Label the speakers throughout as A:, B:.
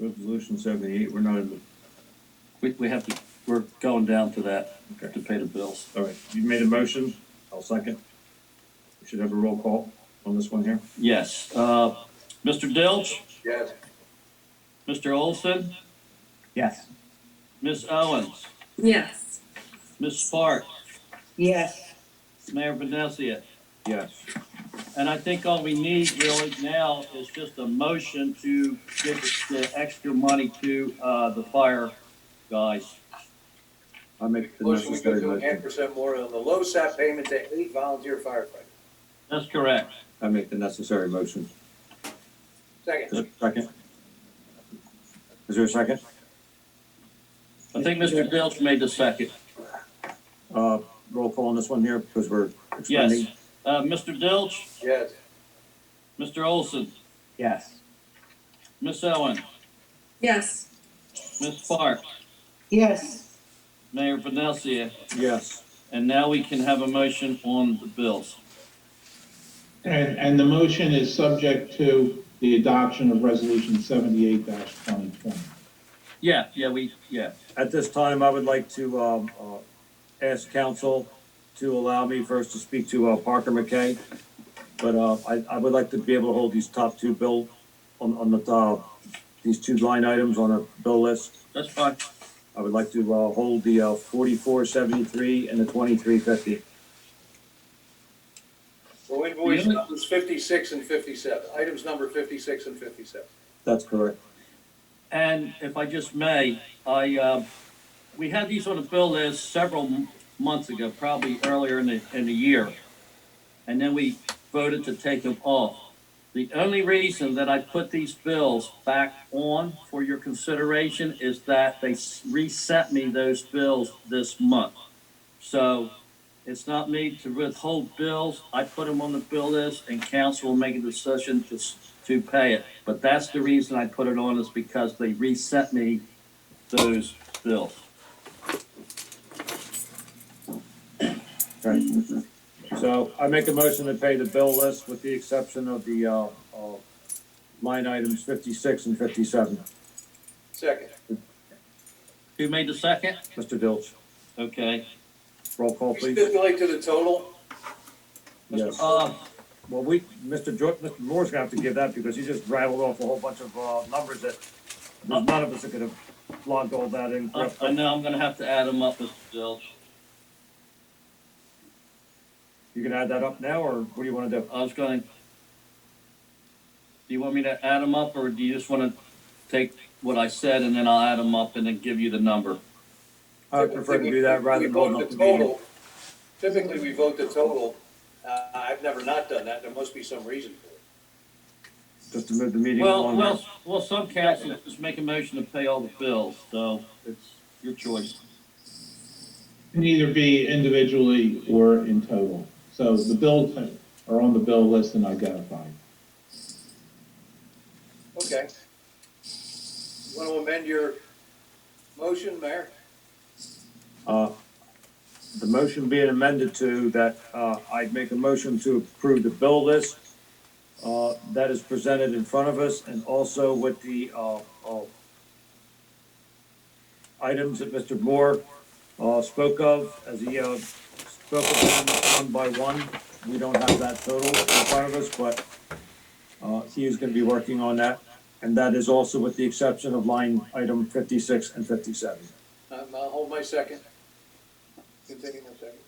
A: Resolution seventy-eight, we're not in, the-
B: We, we have to, we're going down to that
A: okay,
B: to pay the bills.
A: all right, you made a motion, I'll second. We should have a roll call on this one here.
B: Yes, uh, Mr. Dilch,
C: Yes.
B: Mr. Olson,
D: Yes.
B: Miss Owens,
E: Yes.
B: Miss Spark,
D: Yes.
B: Mayor Vinesia.
A: Yes.
B: And I think all we need really now is just a motion to give the extra money to, uh, the fire guys.
F: I make the
C: Motion, we go
F: necessary
C: to ten
F: motion,
C: percent more on the low side payment to eight volunteer firefighters.
B: That's correct.
F: I make the necessary motion.
A: Is there
C: Second,
A: a second? Is there a second?
B: I think Mr. Dilch made the second.
A: Uh, roll call on this one here, because we're
B: Yes.
A: expanding.
B: Uh, Mr. Dilch,
C: yes.
B: Mr. Olson,
D: Yes.
B: Miss Owens,
E: Yes.
B: Miss Spark,
D: Yes.
B: Mayor Vinesia.
A: Yes,
B: And now we can have a motion on the bills.
G: And, and the motion is subject to the adoption of Resolution seventy-eight twenty twenty.
B: Yeah, yeah, we, yeah.
A: at this time, I would like to, um, uh, ask council to allow me first to speak to, uh, Parker McKay. But, uh, I, I would like to be able to hold these top two bill on, on the, uh, these two line items on a bill list.
B: That's fine.
A: I would like to, uh, hold the, uh, forty-four seventy-three and the twenty-three fifty.
C: Well, invoice numbers fifty-six and fifty-seven, items number fifty-six and fifty-seven.
A: That's correct.
B: And if I just may, I, uh, we had these on the bill list several m- months ago, probably earlier in the, in the year. And then we voted to take them off. The only reason that I put these bills back on for your consideration is that they s- resent me those bills this month. So it's not me to withhold bills. I put them on the bill list and council will make a decision to, s- to pay it. But that's the reason I put it on is because they resent me those bills.
A: Right. So I make a motion to pay the bill list with the exception of the, uh, uh, line items fifty-six and fifty-seven.
C: Second,
B: Who made the second?
A: Mr. Dilch,
B: Okay.
A: roll call,
C: we
A: Oh, please.
C: stipulate to the total,
A: Yes.
B: Uh,
A: Well, we, Mr. George, Mr. Moore's gonna have to give that because he just rattled off a whole bunch of, uh, numbers that none of us could have logged all that in.
B: I, uh, I know I'm gonna have to add them up, Mr. Dilch.
A: You can add that up now, or what do you wanna do?
B: I was gonna. Do you want me to add them up or do you just wanna take what I said and then I'll add them up and then give you the number?
A: I would prefer to do that rather than
C: We vote
A: holding up
C: the
A: the meeting.
C: total. Typically, we vote the total. Uh, I've never not done that. There must be some reason for it.
A: Just to move the meeting
B: Well,
A: along.
B: well, well, some councils just make a motion to pay all the bills, so it's your choice.
G: Can either be individually or in total. So the bills are on the bill list and identified.
C: Okay. Want to amend your motion, Mayor?
A: Uh, The motion being amended to that, uh, I'd make a motion to approve the bill list, uh, that is presented in front of us and also with the, uh, uh, items that Mr. Moore, uh, spoke of as he, uh, spoke of them one by one. We don't have that total in front of us, but, uh, he is gonna be working on that. And that is also with the exception of line item fifty-six and fifty-seven.
C: Um, I'll hold my second. Continue my second.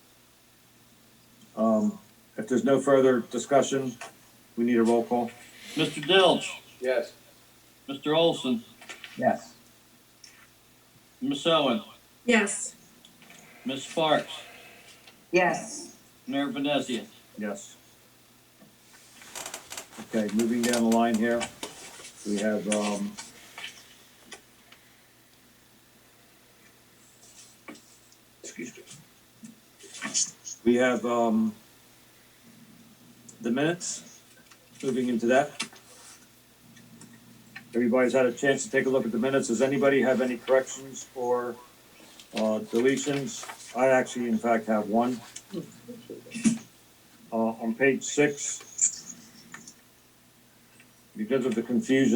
A: Um, if there's no further discussion, we need a roll call.
B: Mr. Dilch,
C: Yes.
B: Mr. Olson,
D: Yes.
B: Miss Owen,
E: Yes.
B: Miss Sparks,
D: Yes.
B: Mayor Vinesia.
A: Yes. Okay, moving down the line here, we have, um, excuse me. We have, um, the minutes, moving into that. Everybody's had a chance to take a look at the minutes. Does anybody have any corrections or, uh, deletions? I actually, in fact, have one uh, on page six. Because of the confusion